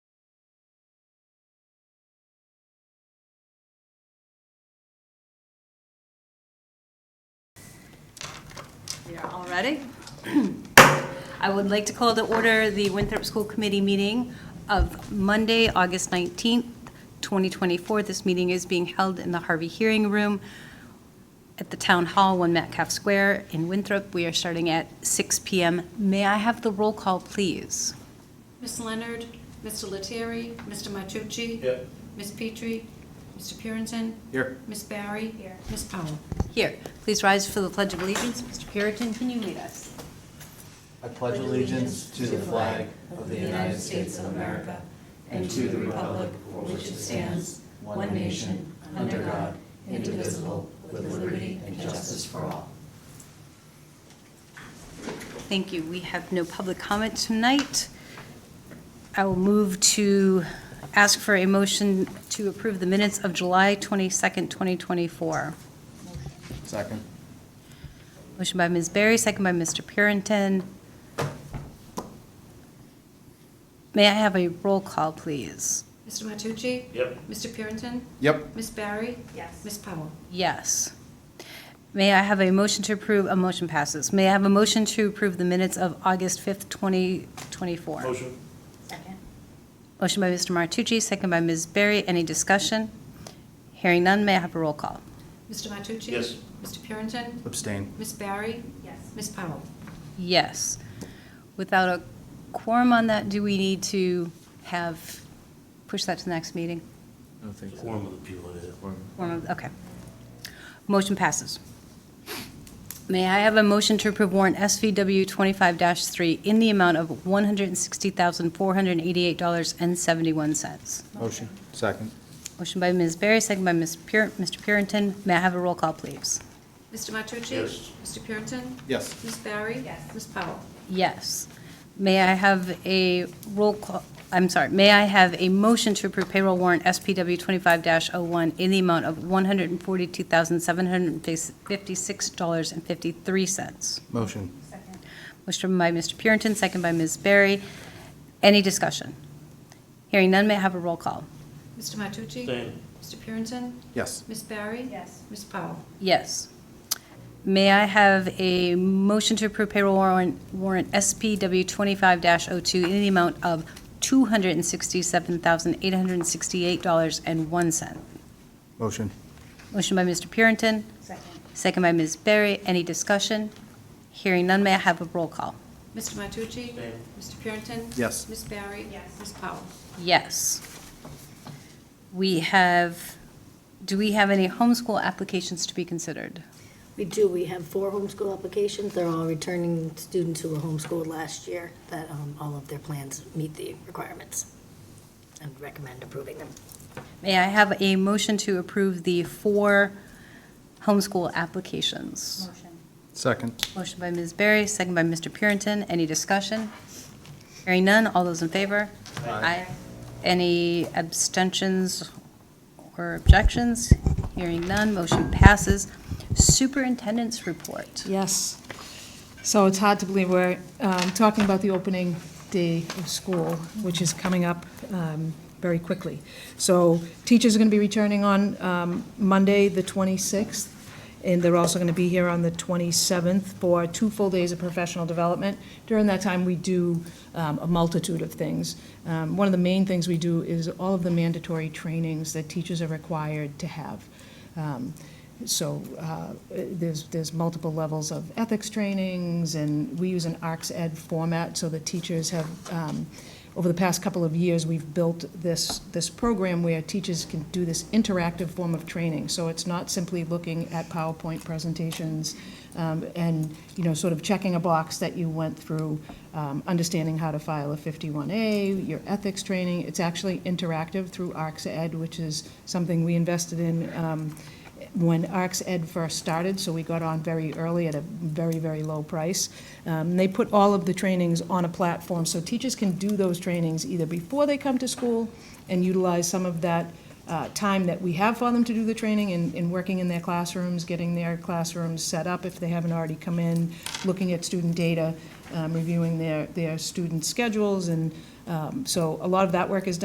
here already. I would like to call to order the Winthrop School Committee meeting of Monday, August 19th, 2024. This meeting is being held in the Harvey Hearing Room at the Town Hall, 1 Metcalf Square in Winthrop. We are starting at 6 PM. May I have the roll call, please? Ms. Leonard, Mr. Lettieri, Mr. Matucci. Here. Ms. Petrie, Mr. Purinton, Here. Ms. Barry. Here. Ms. Powell. Here, please rise for the Pledge of Allegiance. Mr. Puritan, can you lead us? I pledge allegiance to the flag of the United States of America and to the republic for which it stands, one nation, under God, indivisible, with liberty and justice for all. Thank you. We have no public comment tonight. I will move to ask for a motion to approve the minutes of July 22nd, 2024. Second. Motion by Ms. Barry, second by Mr. Purinton. May I have a roll call, please? Mr. Matucci. Yep. Mr. Purinton, Yep. Ms. Barry. Yes. Ms. Powell. Yes. May I have a motion to approve, a motion passes. May I have a motion to approve the minutes of August 5th, 2024? Motion. Motion by Mr. Martucci, second by Ms. Berry. Any discussion? Hearing none, may I have a roll call? Mr. Matucci. Yes. Mr. Purinton, Abstain. Ms. Barry. Yes. Ms. Powell. Yes. Without a quorum on that, do we need to have, push that to the next meeting? I don't think so. Quorum of the people in it. Quorum of- Okay. Motion passes. May I have a motion to approve warrant SVW 25-3 in the amount of $160,488.71? Motion. Second. Motion by Ms. Berry, second by Ms. Pur- Mr. Purinton. May I have a roll call, please? Mr. Matucci. Yes. Mr. Purinton, Yes. Ms. Barry. Yes. Ms. Powell. Yes. May I have a roll call, I'm sorry, may I have a motion to approve payroll warrant SPW 25-01 in the amount of $142,756.53? Motion. Motion by Mr. Purinton, second by Ms. Berry. Any discussion? Hearing none, may I have a roll call? Mr. Matucci. Abstain. Mr. Purinton, Yes. Ms. Barry. Yes. Ms. Powell. Yes. May I have a motion to approve payroll warrant, warrant SPW 25-02 in the amount of $267,868.01? Motion. Motion by Mr. Purinton. Second. Second by Ms. Berry. Any discussion? Hearing none, may I have a roll call? Mr. Matucci. Abstain. Mr. Purinton, Yes. Ms. Barry. Yes. Ms. Powell. Yes. We have, do we have any homeschool applications to be considered? We do, we have four homeschool applications, they're all returning students who were homeschooled last year, that um, all of their plans meet the requirements, and recommend approving them. May I have a motion to approve the four homeschool applications? Second. Motion by Ms. Berry, second by Mr. Purinton. Any discussion? Hearing none, all those in favor? Aye. Any abstentions or objections? Hearing none, motion passes. Superintendent's report. Yes. So it's hard to believe we're um, talking about the opening day of school, which is coming up um, very quickly. So teachers are going to be returning on um, Monday, the 26th, and they're also going to be here on the 27th for two full days of professional development. During that time, we do um, a multitude of things. Um, One of the main things we do is all of the mandatory trainings that teachers are required to have. Um, so uh, there's, there's multiple levels of ethics trainings, and we use an ARCS Ed format, so the teachers have, um, over the past couple of years, we've built this, this program where teachers can do this interactive form of training. So it's not simply looking at PowerPoint presentations um, and, you know, sort of checking a box that you went through, um, understanding how to file a 51A, your ethics training. It's actually interactive through ARCS Ed, which is something we invested in um, when ARCS Ed first started, so we got on very early at a very, very low price. Um, They put all of the trainings on a platform, so teachers can do those trainings either before they come to school and utilize some of that uh, time that we have for them to do the training in, in working in their classrooms, getting their classrooms set up if they haven't already come in, looking at student data, um, reviewing their, their student schedules, and um, so a lot of that work is done.